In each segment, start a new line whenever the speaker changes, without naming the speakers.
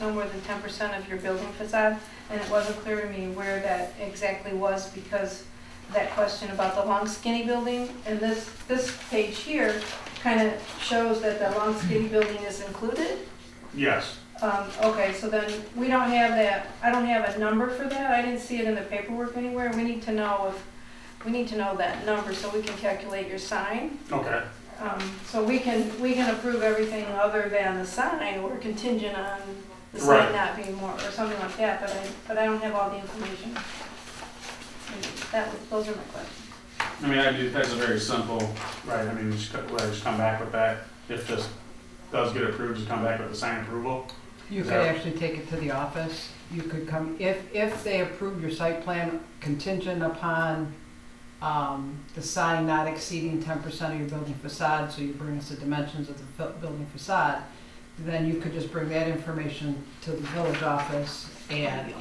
no more than ten percent of your building facade, and it wasn't clear to me where that exactly was because that question about the long skinny building, and this, this page here kind of shows that the long skinny building is included.
Yes,
Um, okay, so then we don't have that, I don't have a number for that, I didn't see it in the paperwork anywhere, we need to know if, we need to know that number so we can calculate your sign.
okay,
Um, so we can, we can approve everything other than the sign or contingent on the sign
Right.
not being more, or something like that, but I, but I don't have all the information. And That, was- those are my questions.
I mean, I do, that's a very simple, right, I mean, just, co- well, just come back with that, if this does get approved, just come back with the sign approval.
You could
Yeah.
actually take it to the office. You could come, if, if they approve your site plan contingent upon um, the sign not exceeding ten percent of your building facade, so you bring us the dimensions of the bu- building facade, then you could just bring that information to the village office and.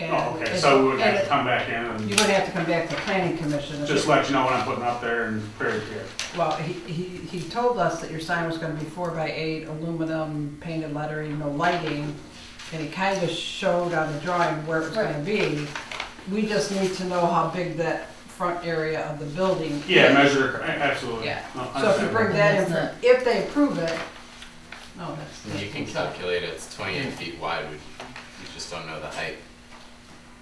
Oh, okay,
and-
so we would have to
and
come back in
You
and
would have to come back to planning commission.
just let you know what I'm putting up there and clear it here.
Well, he, he, he told us that your sign was gonna be four by eight, aluminum, painted lettering, no lighting, and he kinda showed on the drawing where it was gonna be. We just need to know how big that front area of the building.
Yeah,
is.
measure, a- absolutely.
Yeah.
No,
So if you bring
understandable.
that
That's
in,
not-
if they approve it, no, that's.
And You can
that's-
calculate it, it's twenty-eight
Hmm.
feet wide, we, you just don't know the height.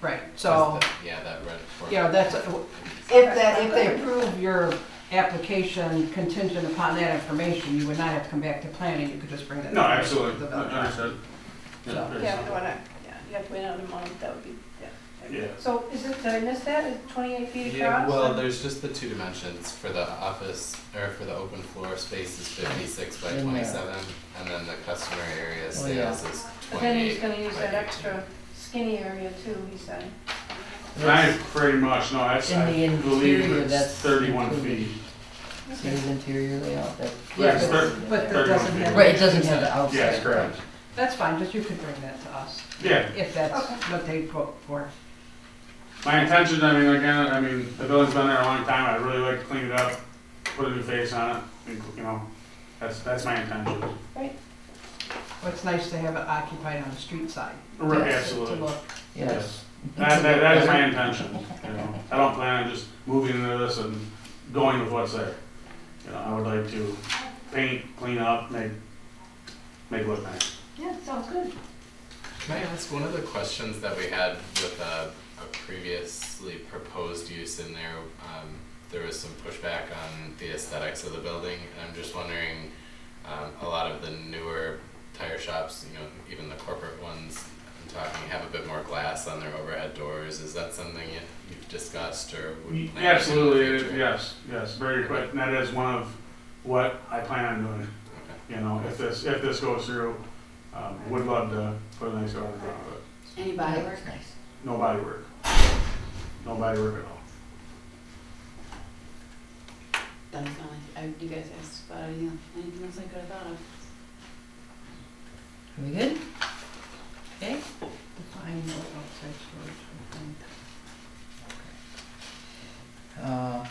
Right,
'cause
so,
Oh.
the- Yeah, that red. form.
you know, that's, if that, if they approve your application contingent upon that information, you would not have to come back to planning, you could just bring that.
No,
information
absolutely,
to
No,
the village office.
understood.
So-
Yeah, very
Yeah, if you
simple.
wanna, yeah, you have to wait another month, that would be, yeah.
Yeah.
So is it, did I miss that, is it twenty-eight feet
Yeah,
across?
well, there's just the two dimensions, for the office, or for the open floor space is fifty-six by
In there.
twenty-seven, and then the customer area
Oh, yeah.
sales is
But then he's
twenty-eight by
gonna use that
eighteen.
extra skinny area too, he said.
And I pretty much, no, that's,
In
I
the
believe
interior,
it's
that's
thirty-one
included.
feet.
See his interior layout, that.
Yeah,
It's thir-
But that
31
doesn't
feet.
have.
Right, it doesn't have the outside.
Yes, correct,
That's fine, just you could bring that to us,
yeah.
if that's
Okay.
what they vote for.
My intention, I mean, again, I mean, the building's been there a long time, I'd really like to clean it up, put a new face on it, and, you know, that's, that's my intention.
Well, it's nice to have it occupied on the street side.
Right,
Yes.
To
absolutely,
look,
Yes.
That, that, that is my intention, you know, I don't plan on just moving into this and going with what's there. You know, I would like to paint, clean up, make, make it look nice.
Yeah, sounds good.
Can I ask, one of the questions that we had with a, a previously proposed use in there, um, there was some pushback on the aesthetics of the building, and I'm just wondering, um, a lot of the newer tire shops, you know, even the corporate ones, I'm talking, have a bit more glass on their overhead doors, is that something you- you've discussed or would plan to do in the future?
Absolutely, yes, yes, very quick, and that is one of what I plan on doing,
Okay.
you know, if this, if this goes through, um, would love to put a nice garden around it.
Anybody
Yeah,
work?
it's nice.
No body work. No body work at all.
That was the only, I, you guys asked about anything, anything else I could have thought of.
Are we good?
define no outside storage.
Uh,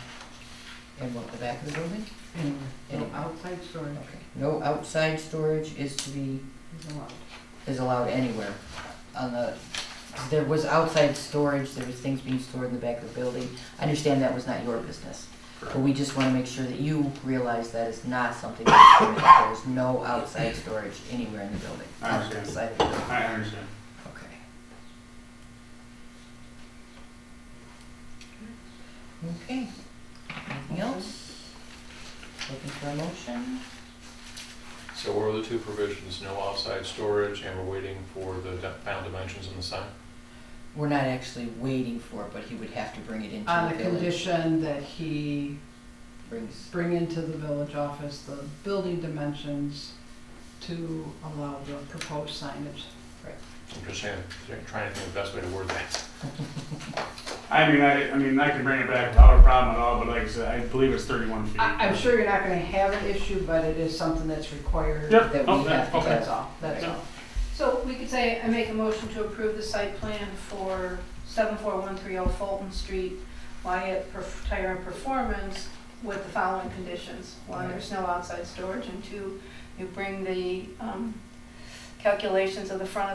and what, the back of the building?
Anyway, no
Anyway.
outside storage
Okay. No outside storage is to be,
is allowed.
is allowed anywhere. On the, 'cause there was outside storage, there was things being stored in the back of the building. I understand that was not your business. But we just wanna make sure that you realize that is not something that's permitted. There is no outside storage anywhere in the building.
I understand.
Outside the building.
I understand.
Okay. Okay, anything else? Looking for a motion?
So what are the two provisions, no outside storage, and we're waiting for the di- final dimensions in the sign?
We're not actually waiting for it, but he would have to bring it into
On
the
the
village.
condition that he
Brings,
bring into the village office the building dimensions to allow the proposed signage.
I'm just saying, trying to think of the best way to word that.
I mean, I, I mean, I can bring it back without a problem at all, but like I said, I believe it's thirty-one feet.
I, I'm sure you're not gonna have an issue, but it is something that's required.
Yep,
that we
oh, yeah,
have to
okay.
That's all, that's all.
So we could say, I make a motion to approve the site plan for 74130 Fulton Street, Wyatt Perf- Tire and Performance with the following conditions. One, there's no outside storage, and two, you bring the um, calculations of the front of